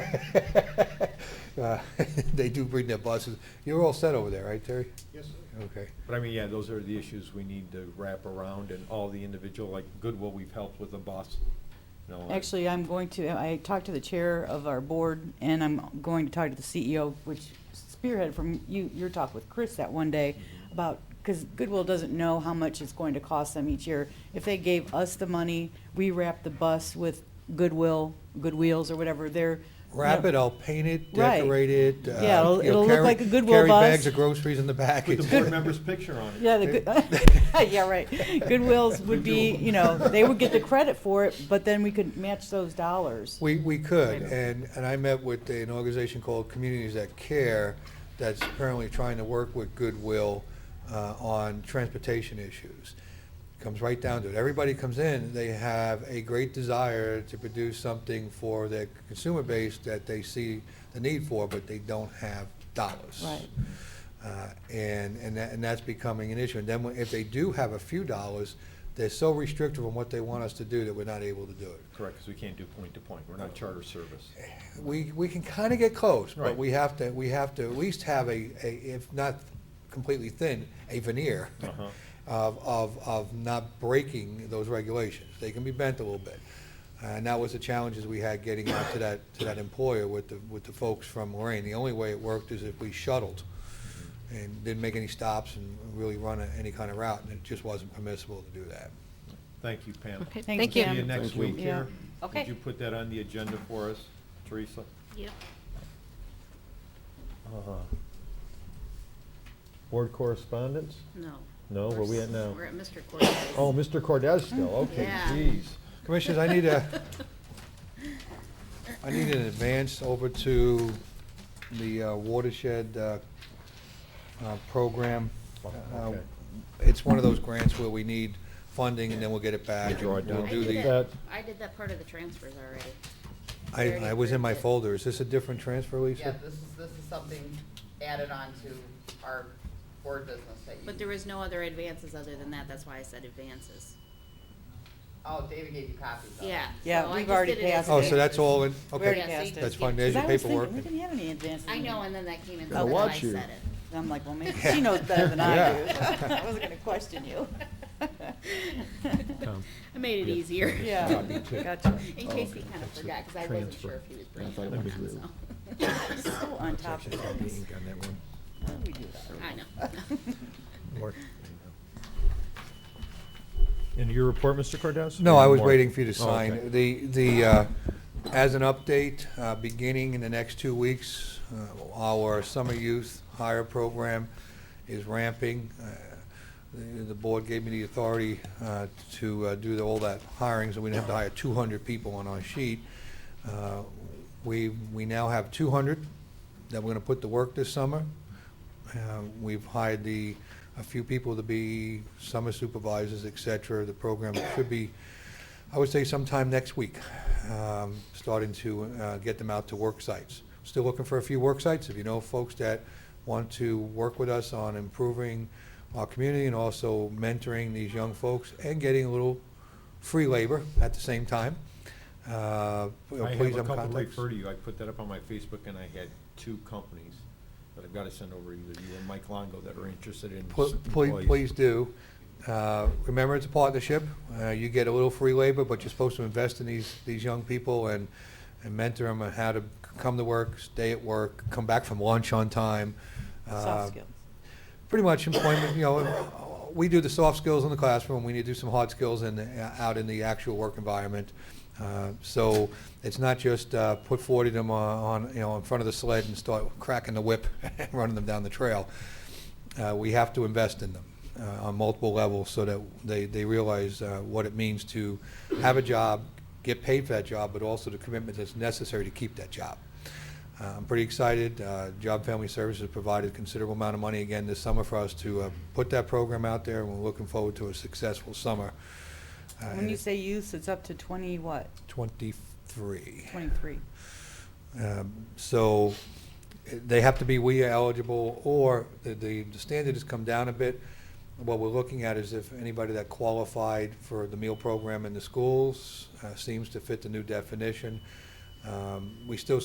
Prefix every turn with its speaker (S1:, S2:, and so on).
S1: Uh, They do bring their buses. You're all set over there, right, Terry?
S2: Yes, sir.
S1: Okay.
S3: But I mean, yeah, those are the issues we need to wrap around and all the individual, like Goodwill, we've helped with the bus. you know, like-
S4: Actually, I'm going to, I talked to the chair of our board, and I'm going to talk to the CEO, which spearheaded from you, your talk with Chris that one day
S1: Mm-hmm.
S4: about, because Goodwill doesn't know how much it's going to cost them each year. If they gave us the money, we wrap the bus with Goodwill, Good Wheels or whatever, they're.
S1: Wrap it, I'll paint it,
S4: Right.
S1: decorate it. uh,
S4: Yeah, it'll-
S1: you know,
S4: it'll look
S1: carry-
S4: like a Goodwill
S1: Carry bags
S4: bus.
S1: of groceries in the back.
S3: Put the board member's picture on it.
S4: Yeah, the, good- yeah, right. Goodwills would be, you know, they would get the credit for it, but then we could match those dollars.
S1: We, we could,
S4: Maybe.
S1: and, and I met with an organization called Communities That Care that's apparently trying to work with Goodwill uh, on transportation issues. Comes right down to it. Everybody comes in, they have a great desire to produce something for their consumer base that they see the need for, but they don't have dollars.
S4: Right.
S1: Uh, And, and that, and that's becoming an issue. And then when- if they do have a few dollars, they're so restrictive on what they want us to do that we're not able to do it.
S3: Correct, because we can't do point to point. We're not charter service.
S1: we, we can kind of get close, but
S3: Right.
S1: we have to, we have to at least have a, a if not completely thin, a veneer
S3: Uh-huh.
S1: of, of, of not breaking those regulations. They can be bent a little bit. And that was the challenges we had getting out to that, to that employer with the, with the folks from Lorraine. The only way it worked is if we shuttled and didn't make any stops and really run a- any kind of route, and it just wasn't permissible to do that.
S3: Thank you, Pam.
S5: Okay,
S4: Thank
S5: thank
S4: you.
S5: you.
S3: See you
S4: Pam.
S3: next
S6: Thank you.
S3: week
S4: Yeah.
S3: here.
S5: Okay.
S3: Would you put that on the agenda for us, Teresa?
S5: Yep.
S3: Uh, Board correspondence?
S5: No.
S3: No, Oh, where we at now?
S5: We're at Mr. Cortez.
S3: Oh, Mr. Cordez still, okay,
S5: Yeah.
S3: jeez.
S1: Commissioners, I need a, I need an advance over to the uh, watershed uh, uh, program.
S3: Oh,
S1: Uh,
S3: okay.
S1: It's one of those grants where we need funding and then we'll get it back.
S3: You draw it
S1: and we'll
S3: down.
S5: I
S1: do
S5: did
S1: the-
S3: that.
S5: that, I did that part of the transfers already.
S1: I, I was in my folder. Is this a different transfer, Lisa?
S7: Yeah, this is, this is something added on to our board business that you.
S5: But there was no other advances other than that, that's why I said advances.
S7: Oh, David gave you copies of it.
S5: Yeah.
S4: Yeah,
S5: so I
S4: we've
S5: just
S4: already
S5: did it as
S4: passed
S1: Oh, so
S4: it.
S1: that's all in,
S4: We already
S1: okay.
S5: Yeah,
S4: passed
S5: see,
S1: That's
S4: it.
S1: fine. There's
S4: Because
S1: your
S4: I was thinking,
S1: paperwork.
S4: we didn't have any advances.
S5: I know, and then that came in,
S6: Gotta
S5: so then I
S6: watch you.
S5: said it.
S4: And I'm like, well, maybe she knows better than I do. I wasn't gonna question you.
S6: Tom.
S5: I made it
S6: Yeah.
S5: easier.
S4: Yeah,
S6: Me too.
S4: gotcha.
S5: In case he
S6: Okay,
S5: kind of
S6: that's a
S5: forgot, because I wasn't
S6: transfer.
S5: sure if he was
S6: I
S5: bringing
S6: thought
S5: it
S6: it
S5: up or
S6: was
S5: not,
S6: Lou.
S5: so.
S4: So on top of things.
S3: Ink on that one.
S4: How do we do that?
S5: I know.
S3: Work. And your report, Mr. Cordez?
S1: No, I was
S3: More?
S1: waiting for you to
S3: Oh, okay.
S1: sign. The, the, uh, as an update, uh, beginning in the next two weeks, uh, our summer youth hire program is ramping. Uh, The the board gave me the authority uh, to uh, do the- all that hiring, so we didn't have to hire 200 people on our sheet. Uh, We, we now have 200 that we're going to put to work this summer. Uh, We've hired the, a few people to be summer supervisors, et cetera. The program should be, I would say sometime next week, um, starting to uh, get them out to work sites. Still looking for a few work sites. If you know folks that want to work with us on improving our community and also mentoring these young folks and getting a little free labor at the same time, uh,
S3: I
S1: please
S3: have
S1: have
S3: a couple
S1: contacts.
S3: refer to you. I put that up on my Facebook and I had two companies that I've got to send over either you or Mike Longo that are interested in
S1: Pl- Please,
S3: employees.
S1: please do. Uh, Remember, it's a partnership. Uh, You get a little free labor, but you're supposed to invest in these, these young people and, and mentor them on how to come to work, stay at work, come back from lunch on time. Uh,
S4: Soft skills.
S1: Pretty much employment, you know, uh, we do the soft skills in the classroom, we need to do some hard skills in, the- uh, out in the actual work environment. Uh, So it's not just uh, put forward to them on, on, you know, in front of the sled and start cracking the whip, and running them down the trail uh, we have to invest in them uh, on multiple levels so that they, they realize uh, what it means to have a job, get paid for that job, but also the commitment that's necessary to keep that job. Uh, I'm pretty excited. Uh, Job Family Services provided considerable amount of money again this summer for us to uh, put that program out there, and we're looking forward to a successful summer. Uh,
S4: When you say youth, it's up to twenty what?
S1: 23.
S4: Twenty-three.
S1: Um, So eh, they have to be WEA eligible, or the- the the standard has come down a bit. What we're looking at is if anybody that qualified for the meal program in the schools uh, seems to fit the new definition. Um, We still